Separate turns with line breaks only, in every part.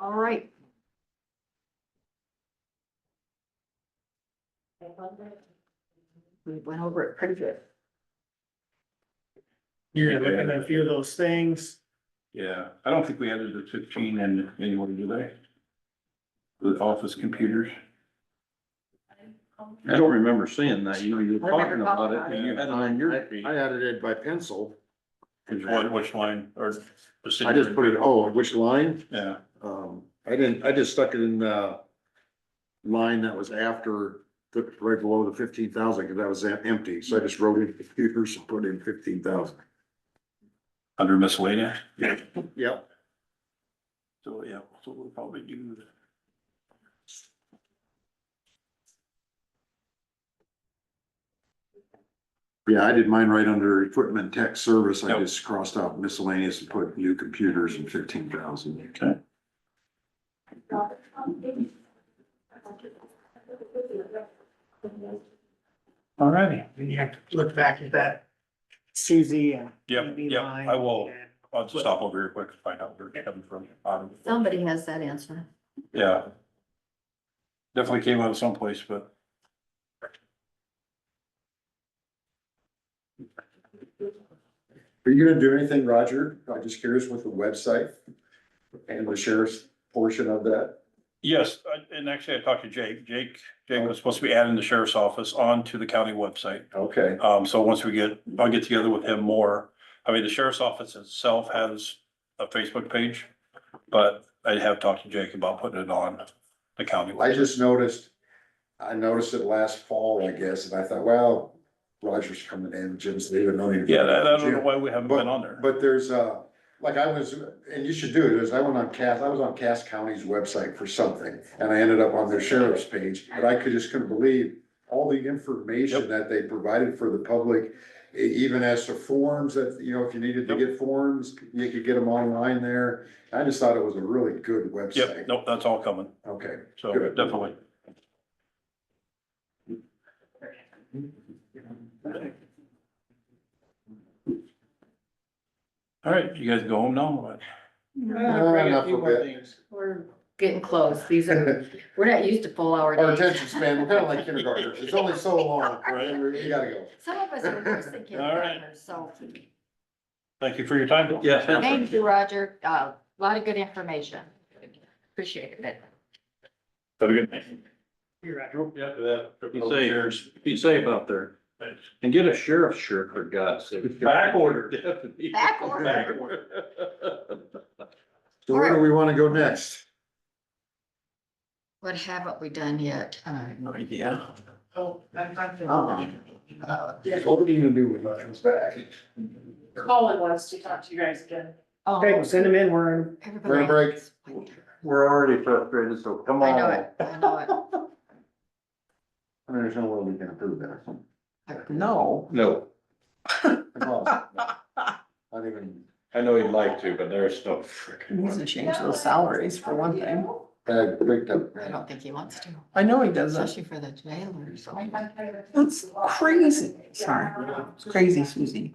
All right. We went over it pretty good.
You're gonna look at a few of those things.
Yeah, I don't think we added the fifteen in anywhere, do they? The office computers. I don't remember seeing that, you know, you were
I remember
talking about it,
talking
and you had it on your feed.
I added it by pencil.
Which one, which line, or? the city-
I just put it, oh, which line?
Yeah,
Um, I didn't, I just stuck it in the line that was after, the right below the fifteen thousand, because that was em- empty, so I just wrote in computers and put in fifteen thousand.
under miscellaneous,
Yep.
so, yeah, so we'll probably do.
Yeah, I did mine right under equipment tech service, I
Yep.
just crossed out miscellaneous and put new computers and fifteen thousand.
Okay. All righty.
And you have to look back at that Suzie and.
Yep,
TV
yep,
line
I will,
and-
I'll just stop over here quick to find out where it's coming from. Um,
Somebody has that answer.
Yeah. Definitely came out of someplace, but.
Are you gonna do anything, Roger? I'm just curious with the website and the sheriff's portion of that.
Yes, I- and actually I talked to Jake. Jake, Jake was supposed to be adding the sheriff's office onto the county website.
Okay.
Um, so once we get, I'll get together with him more. I mean, the sheriff's office itself has a Facebook page, but I have talked to Jake about putting it on the county.
I
website.
just noticed, I noticed it last fall, I guess, and I thought, well, Roger's coming in, Jim's leaving, no need. to-
Yeah, that- I don't know why we haven't been on there.
But there's uh like I was, and you should do it, is I went on Cass, I was on Cass County's website for something, and I ended up on their sheriff's page, but I could, just couldn't believe all the information
Yep.
that they provided for the public, e- even as to forms that, you know, if you needed to
Yep.
get forms, you could get them online there. I just thought it was a really good website.
Yep, nope, that's all coming.
Okay.
So
Good.
definitely. All right, you guys go home now, or what?
Ah,
Uh, bring a
Enough
few
of
more
it.
things.
We're getting close. These are, we're not used to full hour
Our
days.
attention span, we're kinda like kindergartners, it's only so long, you gotta go.
Some of us are worse than kindergartners, so.
Thank you for your time. Yes.
Thank you, Roger. Uh, A lot of good information. Appreciate it.
Have a good night.
You're right.
Be safe, be safe out there. And get a sheriff's shirt for God's sake.
Back order.
Definitely.
Back order.
Back
So where do we wanna go next?
What haven't we done yet?
Yeah.
Oh, I'm,
Uh-uh.
I'm,
What do you do when it comes back?
Colin wants to talk to you guys again.
Oh,
Okay, well, send them in, we're in.
everybody-
break.
We're already frustrated, so come
I know it, I know it.
I mean, there's no way we can approve that.
No. No,
Not even,
I know you'd like to, but there's no frickin'.
Needs to change those salaries for one thing.
I picked up.
I don't think he wants to,
I know he
especially for the jailer, so.
That's crazy. Sorry, it's crazy, Susie.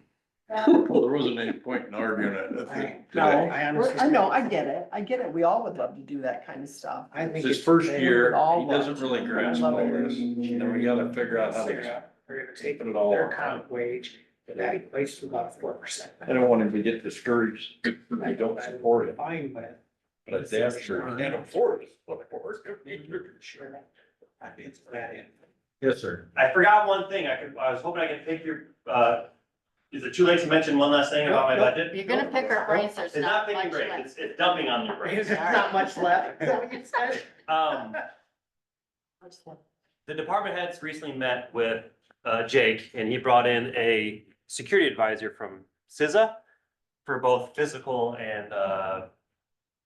Well, there wasn't any point in arguing it, I think,
No,
today.
I honestly.
I know, I get it. I get it. We all would love to do that kind of stuff.
I think
It's his
it's-
first
they
year,
would all
he
love
doesn't
it.
really grasp
Love
all
it.
this, then we gotta figure out how to
They're gonna take
put it all.
their comp wage, and that equates to about four percent.
I don't want him to get discouraged, I don't support it,
Fine, but.
but it's after, and of course, of course.
I think it's that in.
Yes, sir.
I forgot one thing. I could, I was hoping I could pick your, uh, is it too late to mention one last thing about my budget?
You're gonna pick our brains, there's
It's not
not much
picking great.
left.
It's, it's dumping on your brains.
There's not much left. Is that what you said?
Um, the department heads recently met with, uh, Jake and he brought in a security advisor from CISA for both physical and, uh,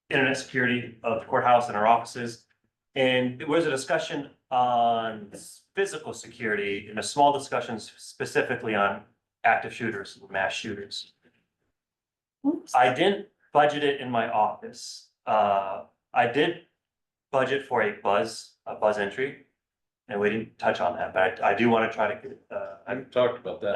internet security of the courthouse and our offices. And there was a discussion on physical security and a small discussion specifically on active shooters, and mass shooters. I didn't budget it in my office. Uh, I did budget for a buzz, a buzz entry. And we didn't touch on that, but I I do want to try to, get, uh, I'm
I've talked about that.